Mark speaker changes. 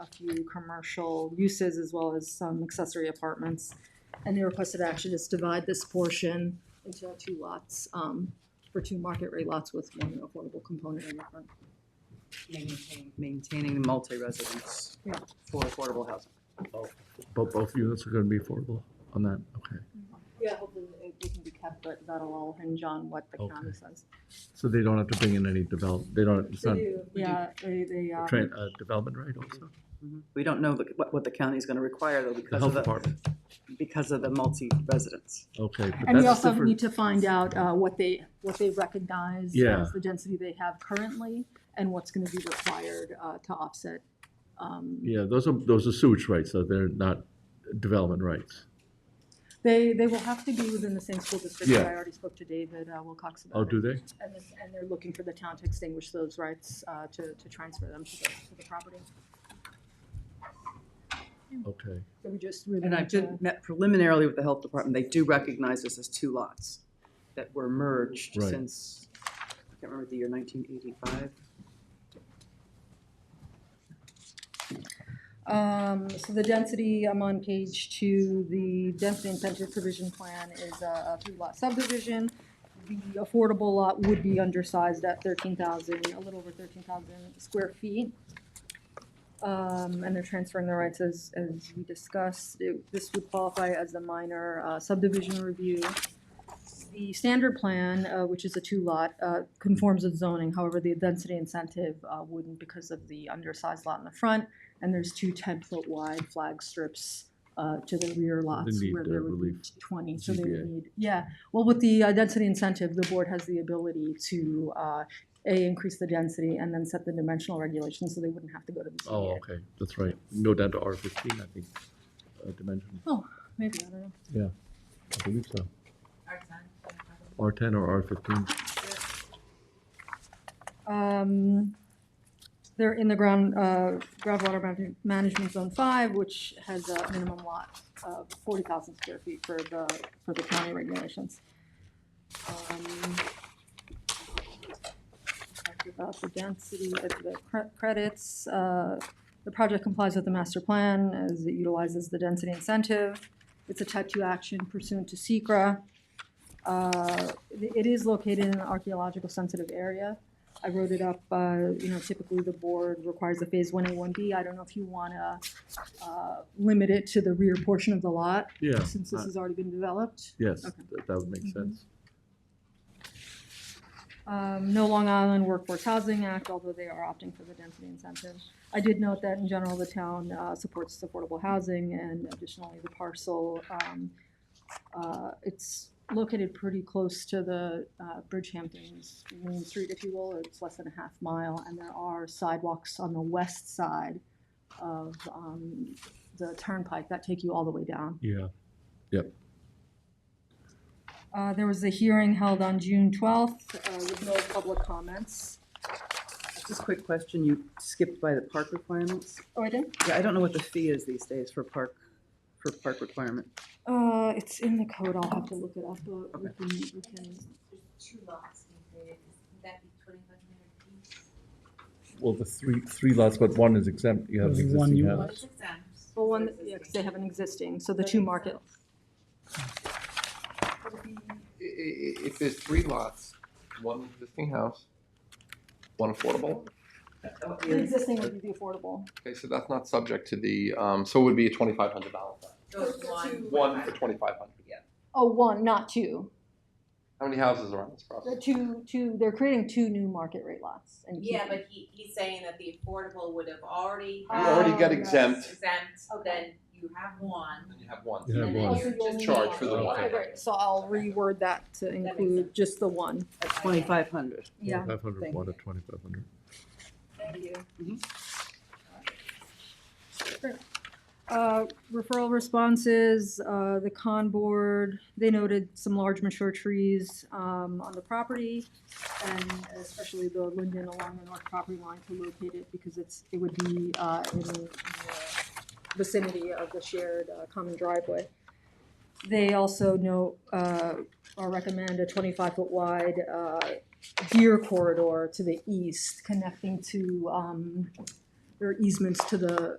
Speaker 1: a few commercial uses as well as some accessory apartments. And the requested action is divide this portion into two lots, um, for two market rate lots with one affordable component in the front.
Speaker 2: Maintaining. Maintaining the multi-residence
Speaker 1: Yeah.
Speaker 2: for affordable housing.
Speaker 3: But both units are gonna be affordable on that, okay.
Speaker 1: Yeah, hopefully it it can be kept, but that'll all hinge on what the county
Speaker 3: Okay.
Speaker 1: says.
Speaker 3: So they don't have to bring in any develop, they don't, it's not
Speaker 1: Yeah, they, they,
Speaker 3: a
Speaker 1: um,
Speaker 3: tra- uh, development right also?
Speaker 2: We don't know the- what, what the county's gonna require though
Speaker 3: The
Speaker 2: because of
Speaker 3: health
Speaker 2: the,
Speaker 3: department,
Speaker 2: because of the multi-residence.
Speaker 3: okay, but
Speaker 1: and we
Speaker 3: that's
Speaker 1: also
Speaker 3: different.
Speaker 1: need to find out, uh, what they, what they recognize
Speaker 3: Yeah.
Speaker 1: as the density they have currently and what's gonna be required, uh, to offset, um,
Speaker 3: Yeah, those are, those are sewage rights, so they're not development rights.
Speaker 1: They, they will have to be within the same school district.
Speaker 3: Yeah.
Speaker 1: I already spoke to David uh, Wilcox about it.
Speaker 3: Oh, do they?
Speaker 1: And this- and they're looking for the town to extinguish those rights, uh, to, to transfer them to the, to the property.
Speaker 3: Okay,
Speaker 1: So we just really
Speaker 2: And I
Speaker 1: need to-
Speaker 2: did, met preliminarily with the health department, they do recognize this as two lots that were merged
Speaker 3: Right.
Speaker 2: since, I can't remember the year, nineteen eighty-five.
Speaker 1: Um, so the density, I'm on page two, the density incentive provision plan is a a three lot subdivision. The affordable lot would be undersized at thirteen thousand, a little over thirteen thousand square feet. Um, and they're transferring the rights as, as we discussed, It- this would qualify as a minor uh, subdivision review. The standard plan, uh, which is a two lot, uh, conforms with zoning, however, the density incentive, uh, wouldn't because of the undersized lot in the front and there's two ten-foot wide flag strips uh, to the rear lots
Speaker 3: need,
Speaker 1: where
Speaker 3: uh,
Speaker 1: there would be
Speaker 3: relief.
Speaker 1: twenty, so they would
Speaker 3: ZBA.
Speaker 1: need, yeah. Well, with the uh, density incentive, the board has the ability to, uh, A, increase the density and then set the dimensional regulations, so they wouldn't have to go to the
Speaker 3: oh,
Speaker 1: ZBA.
Speaker 3: okay, that's right, go down to R fifteen, I think, uh, dimension,
Speaker 1: Maybe, I don't know.
Speaker 3: I believe so. R ten or R fifteen,
Speaker 1: Um, They're in the ground, uh, groundwater man- management zone five, which has a minimum lot of forty thousand square feet for the, for the county regulations. Um, talked About the density of the cre- credits, uh, the project complies with the master plan as it utilizes the density incentive. It's a type two action pursuant to SECR. Uh, It it is located in an archaeological sensitive area, I wrote it up, uh, you know, typically the board requires a phase one A, one B. I don't know if you wanna, uh, limit it to the rear portion of the lot,
Speaker 3: yeah,
Speaker 1: since this
Speaker 3: uh,
Speaker 1: has already been developed.
Speaker 3: yes,
Speaker 1: Okay.
Speaker 3: that that would make
Speaker 1: Mhm.
Speaker 3: sense.
Speaker 1: Um, no Long Island Workforce Housing Act, although they are opting for the density incentive. I did note that in general, the town, uh, supports affordable housing and additionally the parcel, um, uh, it's located pretty close to the, uh, Bridgehampton's main street, if you will, it's less than a half mile, and there are sidewalks on the west side of, um, the turnpike that take you all the way down.
Speaker 3: Yeah,
Speaker 1: Uh, There was a hearing held on June 12th uh, with no public comments.
Speaker 2: Just a quick question, you skipped by the park requirements?
Speaker 1: Oh, I did?
Speaker 2: Yeah, I don't know what the fee is these days for park, for park requirement.
Speaker 1: Uh, It's in the code, I'll have to look it up, but we can, we can,
Speaker 4: two lots being created, would that be twenty-five hundred each?
Speaker 3: well, the three, three lots, but one is exempt, you have an
Speaker 5: There's one
Speaker 3: existing
Speaker 5: unit.
Speaker 3: house.
Speaker 4: Well, it's exempt.
Speaker 1: well, one, yeah, 'cause they have an existing, so the two market.
Speaker 6: i- i- if there's three lots, one existing house, one affordable,
Speaker 1: The existing would be the affordable.
Speaker 6: okay, so that's not subject to the, um, so it would be a twenty-five hundred dollar.
Speaker 4: Those one.
Speaker 6: One for twenty-five hundred.
Speaker 1: Oh, one, not two.
Speaker 6: How many houses are on this
Speaker 1: The
Speaker 6: property?
Speaker 1: two, two, they're creating two new market rate lots. and
Speaker 4: Yeah,
Speaker 1: keeping-
Speaker 4: but he, he's saying that the affordable would have already.
Speaker 6: You already
Speaker 1: Oh,
Speaker 6: got
Speaker 1: yes.
Speaker 6: exempt,
Speaker 4: Exempt, then you have
Speaker 6: and
Speaker 4: one,
Speaker 6: then you have one.
Speaker 3: You have
Speaker 4: and then
Speaker 3: one.
Speaker 4: you're
Speaker 1: Also, you
Speaker 4: just.
Speaker 1: only
Speaker 6: Charge for the
Speaker 4: Okay.
Speaker 6: one.
Speaker 1: Okay, great, so I'll reword that to
Speaker 4: makes
Speaker 1: include
Speaker 4: sense.
Speaker 1: just the one.
Speaker 2: At twenty-five hundred.
Speaker 1: Yeah,
Speaker 3: Five hundred
Speaker 2: Thank
Speaker 3: one
Speaker 2: you.
Speaker 3: to twenty-five hundred.
Speaker 1: thank you. Uh, Referral responses, uh, the con board, they noted some large mature trees um, on the property, and especially the linden along the north property line to locate it, because it's, it would be uh, in the vicinity of the shared uh, common driveway. They also note, uh, or recommend a twenty-five foot wide uh, deer corridor to the east, connecting to um, there are easements to the,